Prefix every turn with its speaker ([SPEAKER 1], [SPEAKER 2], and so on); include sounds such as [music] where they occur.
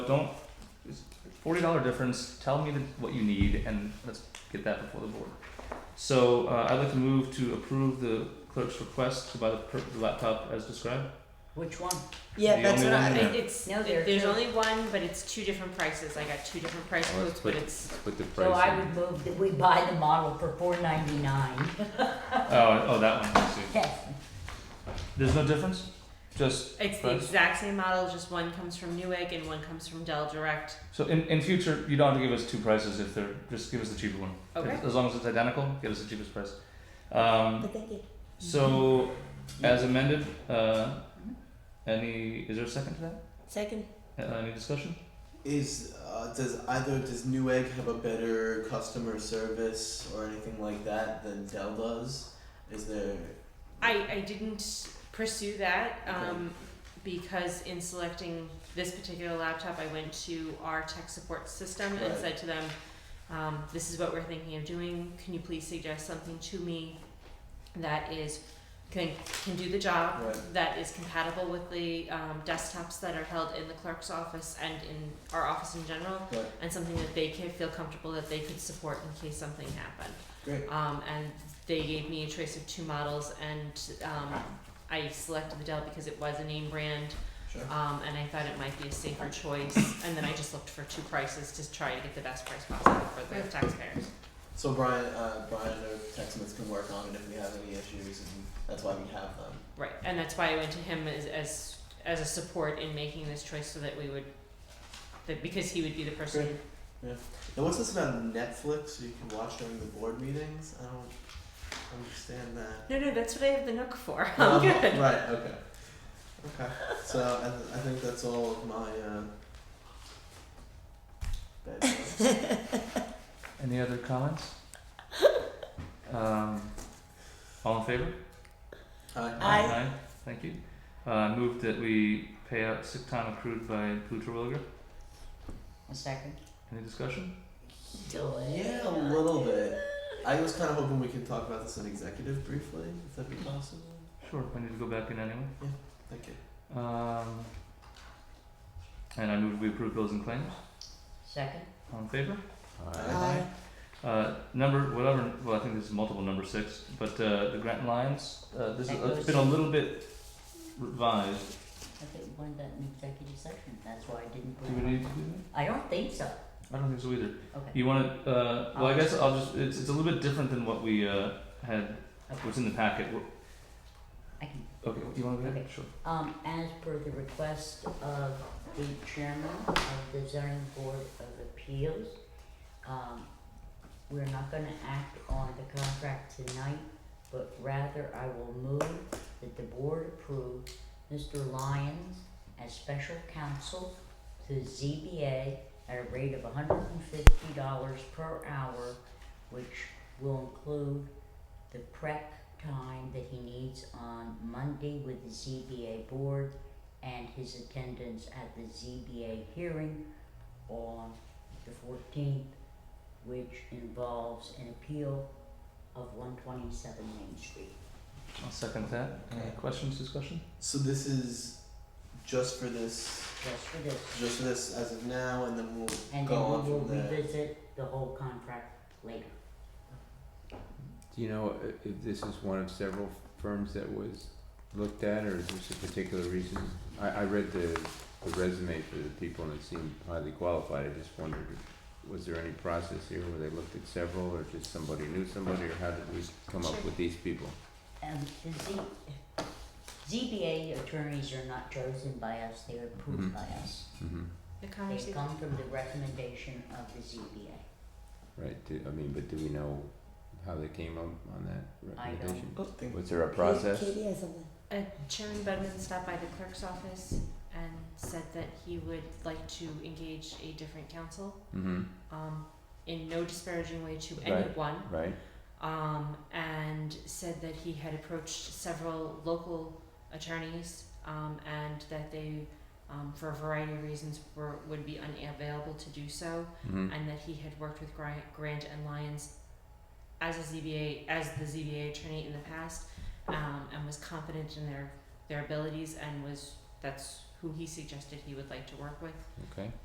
[SPEAKER 1] don't. It's forty dollar difference. Tell me the, what you need, and let's get that before the board. So uh, I'd like to move to approve the clerk's request to buy the, per- the laptop as [laughs] described.
[SPEAKER 2] Which one?
[SPEAKER 1] The
[SPEAKER 3] Yeah, that's
[SPEAKER 1] only
[SPEAKER 3] what
[SPEAKER 1] one
[SPEAKER 3] I,
[SPEAKER 1] there.
[SPEAKER 3] it's,
[SPEAKER 2] No, there are
[SPEAKER 3] there's
[SPEAKER 2] two.
[SPEAKER 3] only one, but it's two different prices, I got two different price
[SPEAKER 1] Oh,
[SPEAKER 4] Well,
[SPEAKER 3] quotes,
[SPEAKER 4] let's
[SPEAKER 3] but
[SPEAKER 4] put-
[SPEAKER 3] it's,
[SPEAKER 4] Put the
[SPEAKER 2] So I
[SPEAKER 4] price
[SPEAKER 2] would move that we buy the model for four ninety nine.
[SPEAKER 1] Oh, oh, that one. I see.
[SPEAKER 2] Yes.
[SPEAKER 1] There's no difference. Just
[SPEAKER 3] it's the
[SPEAKER 1] Price?
[SPEAKER 3] exact same model, just one comes from Newegg and one comes from Dell Direct.
[SPEAKER 1] so in, in future, you don't have to give us two prices if they're just give us the cheaper one.
[SPEAKER 3] Okay.
[SPEAKER 1] As long as it's identical, give us the cheapest price. Um,
[SPEAKER 3] But thank you.
[SPEAKER 1] so as amended, uh, any is there a second to that?
[SPEAKER 3] Second.
[SPEAKER 1] Uh, any discussion?
[SPEAKER 5] Is uh, does either does Newegg have a better customer service or anything like that than Dell does? Is there?
[SPEAKER 3] I, I didn't pursue that, um, because in selecting this particular laptop, I went to our tech support system and
[SPEAKER 5] Right.
[SPEAKER 3] said to them, um, this is what we're thinking of doing, can you please suggest something to me that is, can, can do the job,
[SPEAKER 5] Right.
[SPEAKER 3] that is compatible with the um, desktops that are held in the clerk's office and in our office in general,
[SPEAKER 5] Right.
[SPEAKER 3] and something that they can feel comfortable that they could support in case something happened.
[SPEAKER 5] Great.
[SPEAKER 3] Um, and they gave me a choice of two models, and um, I selected the Dell because it was a name brand,
[SPEAKER 5] Sure.
[SPEAKER 3] um, and I thought it might be a safer choice. And then I just looked for two prices to try to get the best price possible for the taxpayers.
[SPEAKER 5] So Brian, uh, Brian or TechSmith can work on it if we have any issues, and that's why we have them.
[SPEAKER 3] Right, and that's why I went to him as as as a support in making this choice, so that we would, that because he would be the person.
[SPEAKER 5] Great. And what's this about Netflix? So you can watch during the board meetings? I don't understand that.
[SPEAKER 3] No, no, that's what I have the Nook for.
[SPEAKER 5] Oh,
[SPEAKER 3] [laughs]
[SPEAKER 4] Um,
[SPEAKER 3] I'm good.
[SPEAKER 5] Right. Okay. Okay. So I, th- I think that's all of my. Uh, bad jokes.
[SPEAKER 1] Any other comments? um, all in favor?
[SPEAKER 5] Hi.
[SPEAKER 2] Aye.
[SPEAKER 1] Thank you. Uh, move that we pay out sick time accrued by Blue Terwilliger.
[SPEAKER 2] A second.
[SPEAKER 1] Any discussion?
[SPEAKER 5] Yeah, a little bit. I was kind of hoping we could talk about this in executive briefly, if that'd be possible.
[SPEAKER 1] Sure. I need to go back in anyway.
[SPEAKER 5] Thank you.
[SPEAKER 1] Um, and I move we approve bills and claims.
[SPEAKER 2] Second.
[SPEAKER 1] All in favor?
[SPEAKER 4] would.
[SPEAKER 5] Aye.
[SPEAKER 1] Uh, number whatever. Well, I think this is multiple number six, but uh, the Grant Lines. Uh, this is, it's been a little bit revised.
[SPEAKER 2] I think we wanted that in executive session. That's why I didn't
[SPEAKER 1] Do
[SPEAKER 2] put
[SPEAKER 1] we
[SPEAKER 2] it on.
[SPEAKER 1] need to do that?
[SPEAKER 2] I don't think so.
[SPEAKER 1] I don't think so either.
[SPEAKER 2] Okay.
[SPEAKER 1] You want to? Uh, well, I guess I'll just. It's, it's a little bit different than what we uh, had. What's in the packet? Wh-
[SPEAKER 2] I can,
[SPEAKER 1] Okay. Do you want to? Go ahead?
[SPEAKER 2] Okay.
[SPEAKER 1] Sure.
[SPEAKER 2] um, as per the request of the chairman of the zoning board of appeals, um, we're not gonna act on the contract tonight, but rather I will move that the board approve Mr. Lyons as special counsel to ZBA at a rate of hundred and fifty dollars per hour, which will include the prep time that he needs on Monday with the ZBA board and his attendance at the ZBA hearing on the fourteenth, which involves an appeal of one twenty-seven Main Street.
[SPEAKER 1] I'll second that. Any
[SPEAKER 5] Okay.
[SPEAKER 1] questions? Discussion?
[SPEAKER 5] So this is just for this,
[SPEAKER 2] Just for this,
[SPEAKER 5] just for this as of now, and then we'll
[SPEAKER 2] and
[SPEAKER 5] go
[SPEAKER 2] then
[SPEAKER 5] on
[SPEAKER 2] we will
[SPEAKER 5] from there.
[SPEAKER 2] revisit the whole contract later.
[SPEAKER 4] Do you know i- if this is one of several firms that was looked at, or is this a particular reason? I, I read the, the resume for the people and it seemed highly qualified, I just wondered, was there any process here where they looked at several, or just somebody knew somebody, or how did we come
[SPEAKER 3] Sure.
[SPEAKER 4] up with these people?
[SPEAKER 2] Um, the Z, ZBA attorneys are not chosen by us, they are approved
[SPEAKER 4] Mhm.
[SPEAKER 2] by us.
[SPEAKER 4] Mm-hmm.
[SPEAKER 2] They
[SPEAKER 3] The conversation.
[SPEAKER 2] come from the recommendation of the ZBA.
[SPEAKER 4] Right, do, I mean, but do we know how they came up on that
[SPEAKER 2] I don't.
[SPEAKER 4] recommendation?
[SPEAKER 5] I think
[SPEAKER 4] Was there a process?
[SPEAKER 3] Uh, Chairman Budman stopped by the clerk's office and said that he would like to engage a different counsel,
[SPEAKER 4] Mm-hmm,
[SPEAKER 3] um, in no disparaging way to
[SPEAKER 4] Right.
[SPEAKER 3] anyone.
[SPEAKER 4] right,
[SPEAKER 3] Um, and said that he had approached several local attorneys, um, and that they, um, for a variety of reasons were, would be unavailable to do so,
[SPEAKER 4] mm-hmm,
[SPEAKER 3] and that he had worked with Grant, Grant and Lyons as a ZBA, as the ZBA attorney in the past, um, and was confident in their, their abilities and was, that's who he suggested he would like to work with.
[SPEAKER 4] okay.